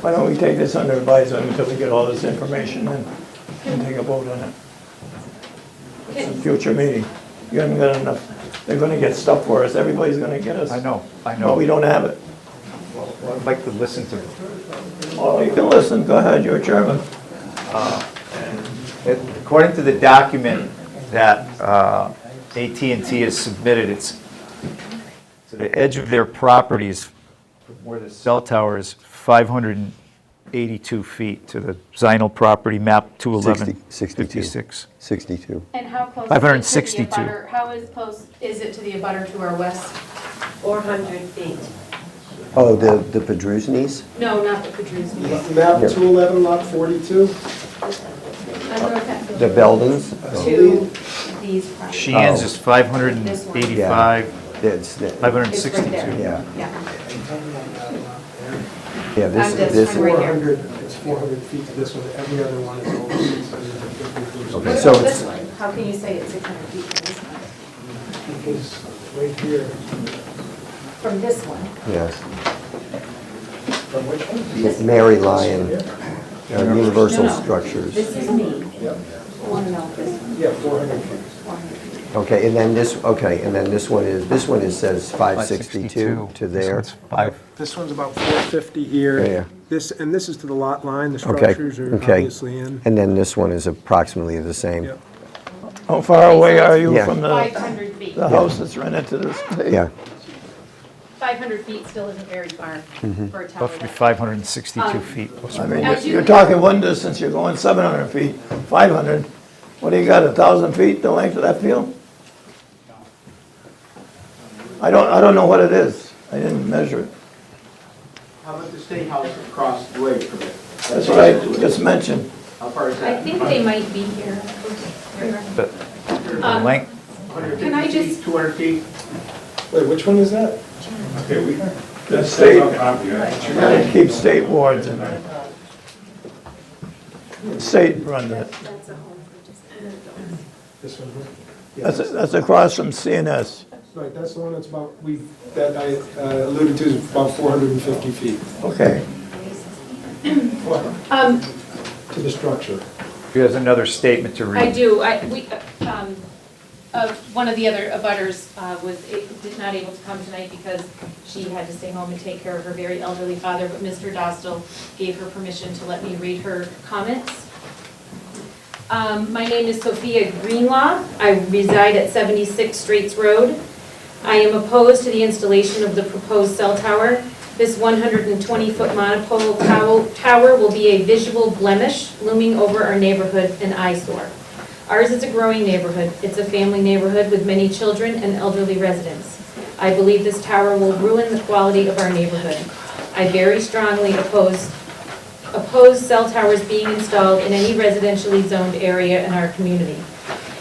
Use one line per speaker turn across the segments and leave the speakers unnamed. Why don't we take this under advisement until we get all this information and, and take a vote on it? It's a future meeting. You haven't got enough, they're gonna get stuff for us, everybody's gonna get us.
I know, I
But we
know.
don't have it.
Well, I'd like to listen to,
Oh, you can listen, go ahead, you're chairman.
it. according to the document that uh, AT&T has submitted, it's, so the edge of their property is where the cell tower is 582 feet to the Zinal property map 211.
60 62.
56.
62.
And how close? is it
562.
to the abutter- How is close, is it to the abutter to our west?
400 feet.
Oh, the, the Pedrusnes?
No, not the Kudrowski's.
Map
Yeah.
211, lot 42.
The Beldens?
To these properties.
Sheehan's
Oh.
is 585,
That's, the-
It's right
562.
there.
yeah,
Yeah,
yeah, this,
I'm just-
this,
I'm right here.
400, it's 400 feet to this one, every other one is over 650
Okay,
what
so
about
it's-
this one? How can you say it's 600 feet from this one?
Because right here,
From this one?
yes.
from which one?
It's Mary Lyon, uh, Universal
No, no.
Structures.
This is me.
Yep.
I want to know if this one.
Yeah, 400 feet.
Okay, and then this, okay, and then this one is, this one is, says 562 to
This
there.
one's Five.
This one's about 450 here.
Yeah, yeah.
This, and this is to the lot line, the
Okay,
structures are
okay.
obviously in.
And then this one is approximately the same.
Yep.
How far away are you
Yeah.
from the,
500 feet.
the house that's rented to this place?
Yeah,
500 feet still isn't very far for a tower.
Must be
that- Um,
562 feet. plus
I
or
mean,
minus.
you're- you're talking one distance, you're going seven hundred feet, five hundred. What do you got, a thousand feet, the length of that field? I don't, I don't know what it is. I didn't measure it.
How about the state house across the way from it?
That's what I just mentioned.
How far is
I
that?
think they might be here.
But the
Um,
length,
150
Can I
feet,
just-
200 feet?
Wait, which one is that?
Okay, we,
The state,
yeah,
you gotta keep state wards in there. State run that.
That's a home for just adults.
This one here? Yeah,
That's, that's across from CNS.
Right, that's the one that's about, we, that I uh, alluded to, is about 450 feet
Okay.
Um,
to the structure.
here's another statement to read.
I do, I, we, uh, um, uh, one of the other abutters uh, was, it- did not able to come tonight because she had to stay home and take care of her very elderly father, but Mr. Dostal gave her permission to let me read her comments. Um, My name is Sophia Greenlaw. I reside at 76 Straits Road. I am opposed to the installation of the proposed cell tower. This 120-foot monopole tow- tower will be a visual blemish looming over our neighborhood and eyesore. Ours is a growing neighborhood. It's a family neighborhood with many children and elderly residents. I believe this tower will ruin the quality of our neighborhood. I very strongly oppose oppose cell towers being installed in any residentially zoned area in our community.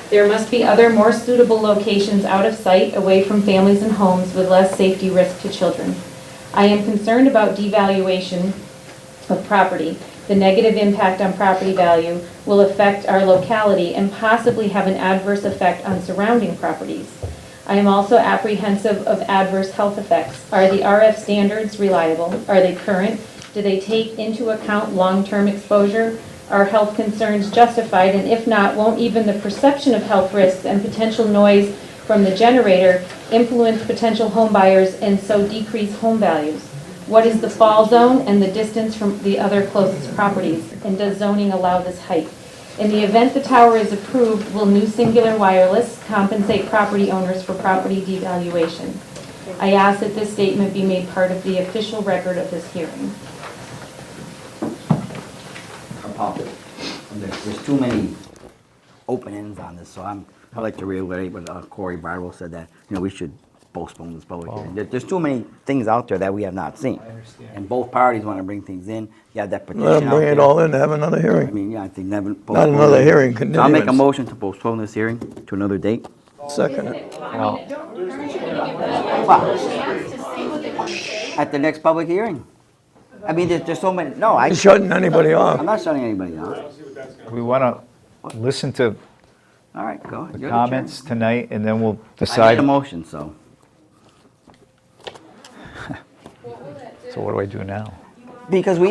There must be other more suitable locations out of sight, away from families and homes with less safety risk to children. I am concerned about devaluation of property. The negative impact on property value will affect our locality and possibly have an adverse effect on surrounding properties. I am also apprehensive of adverse health effects. Are the RF standards reliable? Are they current? Do they take into account long-term exposure? Are health concerns justified? And if not, won't even the perception of health risks and potential noise from the generator influence potential home buyers and so decrease home values? What is the fall zone and the distance from the other closest properties? And does zoning allow this height? In the event the tower is approved, will new Singular Wireless compensate property owners for property devaluation? I ask that this statement be made part of the official record of this hearing.
are popular. And There's there's too many open ends on this, so I'm, I'd like to reiterate what uh, Corey Barlow said, that, you know, we should postpone this public hearing. There- There's too many things out there that we have not seen. And both parties want to bring things in, you have that petition
Let them
out
bring it
there.
all in, have another
I
hearing.
mean, yeah, I think never.
Not another hearing,
So I'll make a
continuance.
motion to postpone this hearing to another date.
Second it.
At the next public hearing. I mean, there's, there's so many, no, I,
You're shutting anybody
I'm
off.
not shutting anybody out.
We want to listen to
All right, go.
the
you're chairman.
comments tonight, and then we'll
I made
decide.
a motion, so.
So what do I do now?
Because we